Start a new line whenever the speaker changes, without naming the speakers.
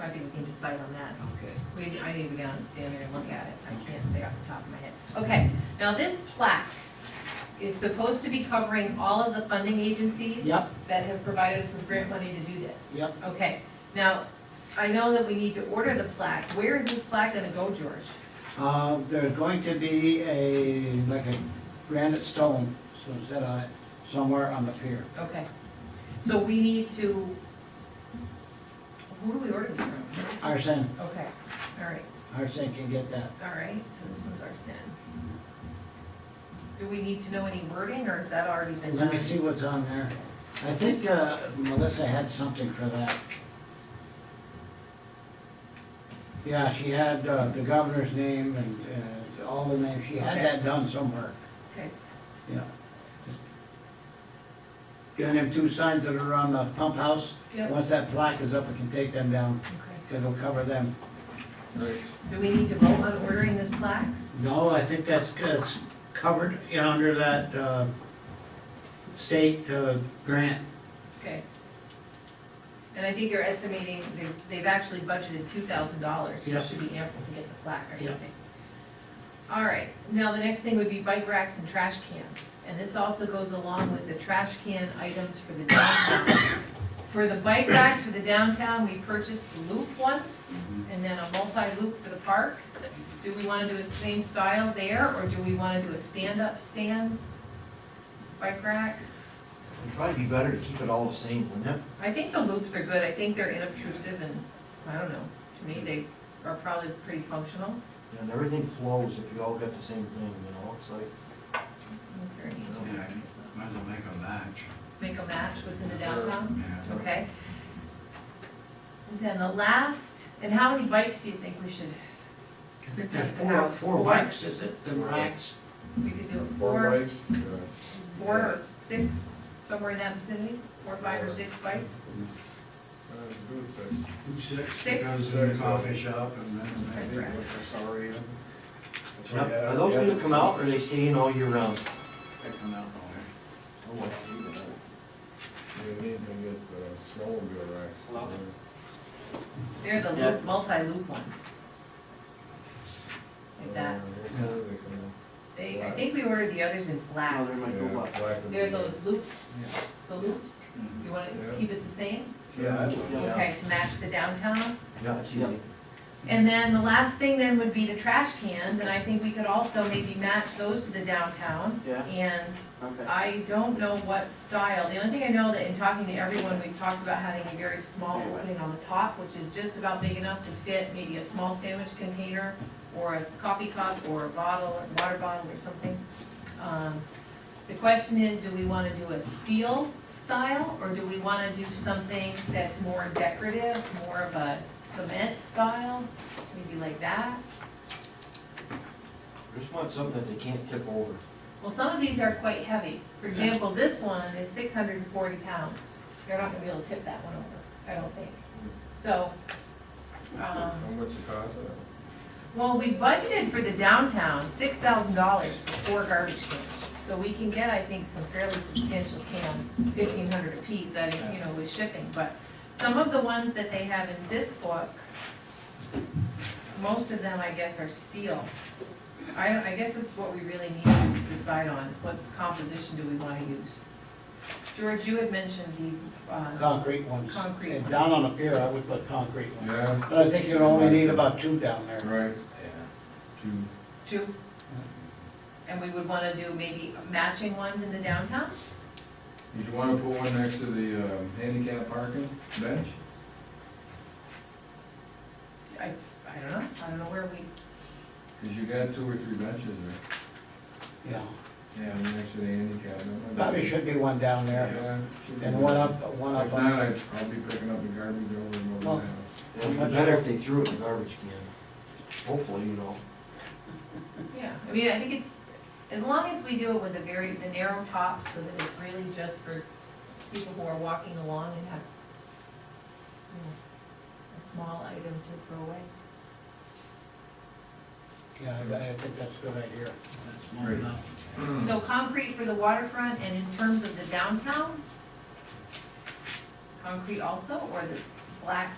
I'd be looking to cite on that.
Okay.
We, I need to get on the standard and look at it, I can't say off the top of my head. Okay, now this plaque is supposed to be covering all of the funding agencies
Yep,
that have provided us with grant money to do this.
yep.
Okay, now, I know that we need to order the plaque, where is this plaque gonna go, George?
Uh, There's going to be a, like a granite stone, so set on it, somewhere on the pier.
Okay, so we need to, who do we order this from?
Arson,
Okay, all right,
Arson can get that.
all right, so this one's our sin. Do we need to know any wording, or is that already been done?
Let me see what's on there. I think uh, Melissa had something for that. Yeah, she had uh, the governor's name and uh, all the names, she had
Okay.
that done somewhere,
Okay,
yeah. Got them two signs that are on the pump house.
Yep.
Once that plaque is up, we can take them down,
okay.
because it'll cover them.
Do we need to vote on ordering this plaque?
No, I think that's, that's covered you know, under that uh, state uh, grant.
Okay. And I think you're estimating, they- they've actually budgeted two thousand dollars,
Yep.
which should be ample to get the plaque, I
Yep.
think. All right, now the next thing would be bike racks and trash cans. And this also goes along with the trash can items for the downtown. For the bike racks for the downtown, we purchased the loop ones, and then a multi-loop for the park. Do we wanna do the same style there, or do we wanna do a stand-up stand bike rack?
It'd probably be better to keep it all the same, wouldn't it?
I think the loops are good, I think they're inobtrusive and, I don't know, to me, they are probably pretty functional.
And everything flows if you all got the same thing, you know, it's like,
Very neat.
Yeah, might as well make a match.
Make a match, what's in the downtown,
Yeah.
okay? And Then the last, and how many bikes do you think we should,
I think there's four, four racks, is it, the racks?
we could do
Four
four,
bikes,
four or six, somewhere in that vicinity? Four, five or six bikes?
uh, food service.
Six,
Six.
goes to the coffee shop and
Okay,
then maybe
correct.
with the sorry,
That's
Now,
what you have-
are those
you have
gonna
to-
come out or are they staying all year round?
they come out from
Oh, well, you know.
You need to get the snowmobile racks.
Hello?
They're the loop, multi-loop ones. Like that,
Uh, what color they come in?
they, I think we ordered the others in black,
Yeah, black and
they're
blue.
those loop, the loops, you wanna
Yeah.
keep it the same?
there.
Yeah, I
Yeah.
Okay, to match the downtown.
Yeah, it's easy.
And then the last thing then would be the trash cans, and I think we could also maybe match those to the downtown.
Yeah.
And
Okay.
I don't know what style, the only thing I know that in talking to everyone, we've talked about having a very small opening on the top, which is just about big enough to fit maybe a small sandwich container, or a coffee cup, or a bottle, or water bottle or something. Um, The question is, do we wanna do a steel style, or do we wanna do something that's more decorative, more of a cement style, maybe like that?
I Just want something that they can't tip over.
Well, some of these are quite heavy. For example, this one is six hundred and forty pounds. They're not gonna be able to tip that one over, I don't think. So, um,
How much it cost? uh,
well, we budgeted for the downtown, six thousand dollars for four garbage cans. So we can get, I think, some fairly substantial cans, fifteen hundred apiece, that, you know, with shipping. But some of the ones that they have in this book, most of them, I guess, are steel. I, I guess it's what we really need to decide on, is what composition do we wanna use? George, you had mentioned the, uh,
Concrete ones.
Concrete
And
ones.
down on the pier, I would put concrete ones.
Yeah,
But I think you only need about two down there.
right,
Yeah.
two,
two. And we would wanna do maybe matching ones in the downtown?
you'd wanna put one next to the, uh, handicap parking bench?
I, I don't know, I don't know where we,
Cause you got two or three benches there.
Yeah,
Yeah. Next to the handicap. don't they?
probably should be one down there,
Yeah. should be
and
good.
one up, one
If
up
not,
on,
I, I'll be picking up the garbage over and
Well,
over there.
It'd be better if they threw it in the garbage can. Hopefully, you know.
yeah, I mean, I think it's, as long as we do it with a very, the narrow top, so that it's really just for people who are walking along and have, you know, a small item to throw away.
yeah, I I think that's a good idea.
Great.
So concrete for the waterfront, and in terms of the downtown, concrete also, or the black